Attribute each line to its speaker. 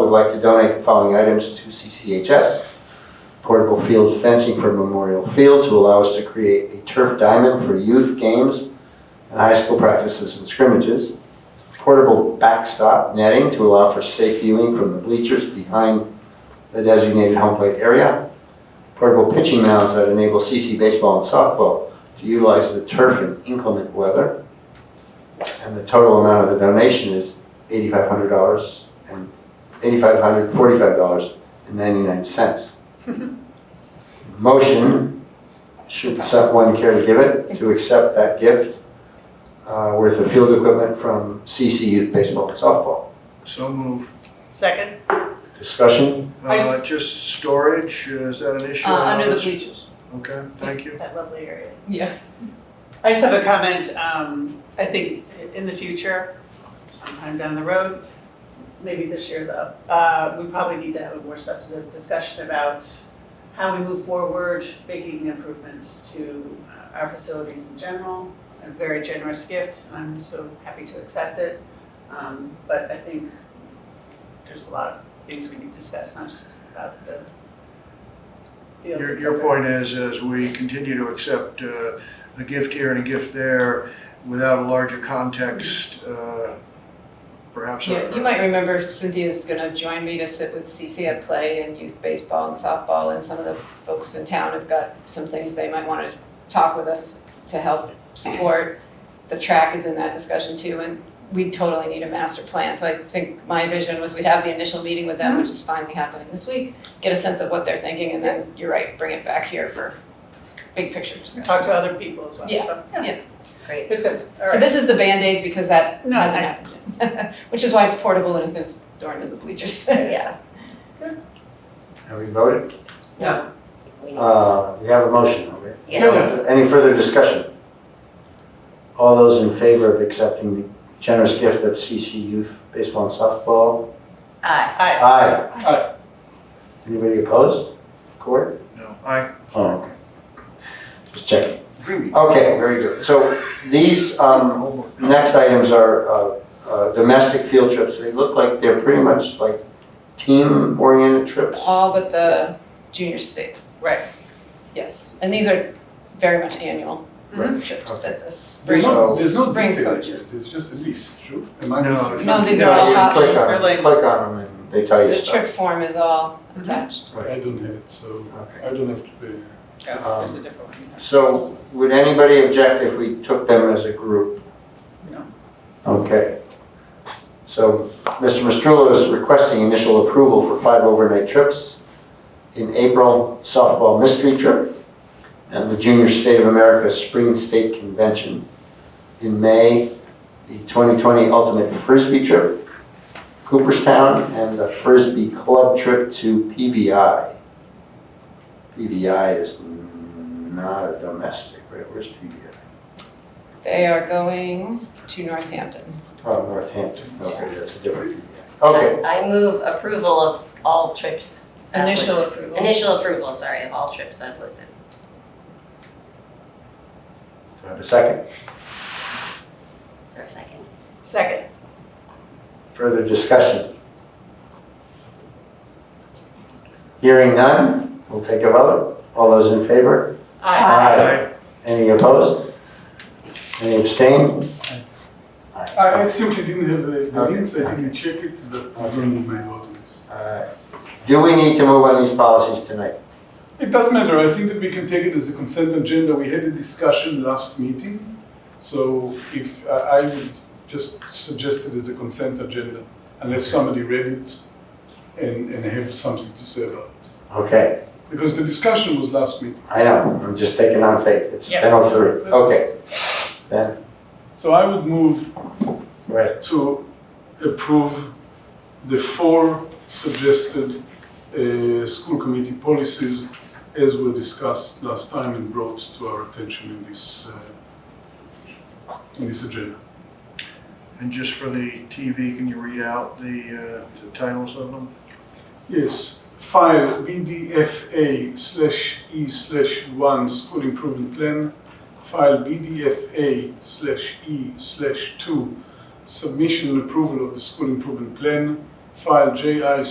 Speaker 1: would like to donate the following items to CCHS. Portable field fencing for Memorial Field to allow us to create a turf diamond for youth games and high school practices and scrimmages. Portable backstop netting to allow for safe viewing from the bleachers behind the designated home plate area. Portable pitching mounds that enable CC baseball and softball to utilize the turf in inclement weather. And the total amount of the donation is eighty-five hundred dollars and eighty-five hundred forty-five dollars and ninety-nine cents. Motion, should someone care to give it, to accept that gift uh, worth of field equipment from CC Youth Baseball and Softball.
Speaker 2: So move.
Speaker 3: Second?
Speaker 1: Discussion?
Speaker 3: I
Speaker 2: Uh, just storage, uh, is that an issue?
Speaker 4: Uh, under the bleachers.
Speaker 2: Okay, thank you.
Speaker 3: That lovely area.
Speaker 4: Yeah.
Speaker 3: I just have a comment, um, I think in the future, sometime down the road, maybe this year though, uh, we probably need to have a more substantive discussion about how we move forward, making improvements to uh, our facilities in general. A very generous gift, I'm so happy to accept it, um, but I think there's a lot of things we need to discuss, not just about the fields.
Speaker 2: Your,
Speaker 3: and
Speaker 2: your
Speaker 3: stuff.
Speaker 2: point is, as we continue to accept uh, a gift here and a gift there without a larger context, uh, perhaps. uh, a-
Speaker 4: Yeah, you might remember Cynthia's gonna join me to sit with CC at Play and youth baseball and softball, and some of the folks in town have got some things they might wanna talk with us to help support. The track is in that discussion too, and we totally need a master plan, so I think my vision was we'd have the initial meeting with them, which is finally happening this week, get a sense of what they're thinking, and then, you're right, bring it back here for big picture discussion.
Speaker 3: talk to other people as well.
Speaker 4: Yeah,
Speaker 3: so-
Speaker 4: yeah. Great.
Speaker 3: It's good, all
Speaker 4: So
Speaker 3: right.
Speaker 4: this is the Band-Aid because that
Speaker 3: No,
Speaker 4: hasn't happened yet, which is why it's portable and it's gonna store into the bleachers,
Speaker 3: Yes.
Speaker 1: Have we voted?
Speaker 3: No.
Speaker 1: Uh, We have a motion, okay?
Speaker 5: Yes.
Speaker 1: Any further discussion? All those in favor of accepting the generous gift of CC Youth Baseball and Softball?
Speaker 5: Aye.
Speaker 3: Aye.
Speaker 1: Aye. Aye. Anybody opposed? Court?
Speaker 2: No, I,
Speaker 1: Oh, okay. Just checking. Okay, very good. So these, um, Next items are uh, uh, domestic field trips. They look like they're pretty much like team-oriented trips.
Speaker 4: All but the junior state,
Speaker 3: Right.
Speaker 4: yes, and these are very much annual
Speaker 3: Mm-hmm.
Speaker 1: Right.
Speaker 4: trips that the spring,
Speaker 6: There's no, there's no
Speaker 4: spring
Speaker 6: detail,
Speaker 4: coaches.
Speaker 6: there's just a list, true? Am I
Speaker 2: No,
Speaker 6: missing
Speaker 2: it's
Speaker 4: No,
Speaker 6: something?
Speaker 4: these are all
Speaker 1: Yeah, you click
Speaker 4: optional.
Speaker 1: on them,
Speaker 3: Links.
Speaker 1: Click on them and they tell you
Speaker 4: The trip
Speaker 1: stuff.
Speaker 4: form is all
Speaker 3: Mm-hmm.
Speaker 4: attached.
Speaker 6: I don't have it, so
Speaker 1: Okay.
Speaker 6: I don't have to pay.
Speaker 3: No, there's a different one.
Speaker 1: So would anybody object if we took them as a group?
Speaker 3: No.
Speaker 1: Okay. So Mr. Mastrullo is requesting initial approval for five overnight trips. In April, softball mystery trip and the Junior State of America Spring State Convention. In May, the 2020 Ultimate Frisbee trip, Cooperstown, and the Frisbee Club trip to PBI. PBI is not a domestic, right? Where's PBI?
Speaker 4: They are going to Northampton.
Speaker 1: Oh, Northampton, okay, that's a different PBI. Okay,
Speaker 5: I move approval of all trips as
Speaker 4: Initial
Speaker 5: listed.
Speaker 4: approval.
Speaker 5: Initial approval, sorry, of all trips as listed.
Speaker 1: do I have a second?
Speaker 5: Is there a second?
Speaker 3: Second.
Speaker 1: Further discussion? Hearing none, we'll take a vote. All those in favor?
Speaker 3: Aye.
Speaker 2: I,
Speaker 1: Any opposed? Any abstain?
Speaker 6: I, I
Speaker 1: Aye.
Speaker 6: simply didn't have the, the
Speaker 1: Okay.
Speaker 6: links, I didn't check it, but I don't need my documents.
Speaker 1: Alright. Do we need to move on these policies tonight?
Speaker 6: It does matter, I think that we can take it as a consent agenda, we had a discussion last meeting, so if, I, I would just suggest it as a consent agenda, unless somebody read it and, and have something to say about it.
Speaker 1: Okay,
Speaker 6: Because the discussion was last meeting.
Speaker 1: I know, I'm just taking on faith. It's
Speaker 3: Yeah.
Speaker 1: 10:03. Okay,
Speaker 6: So I would move
Speaker 1: right.
Speaker 6: to approve the four suggested uh, school committee policies as were discussed last time and brought to our attention in this, uh, in this agenda.
Speaker 2: and just for the TV, can you read out the uh, the titles of them?
Speaker 6: Yes, file BDFA slash E slash one school improvement plan, file BDFA slash E slash two submission and approval of the school improvement plan, file JI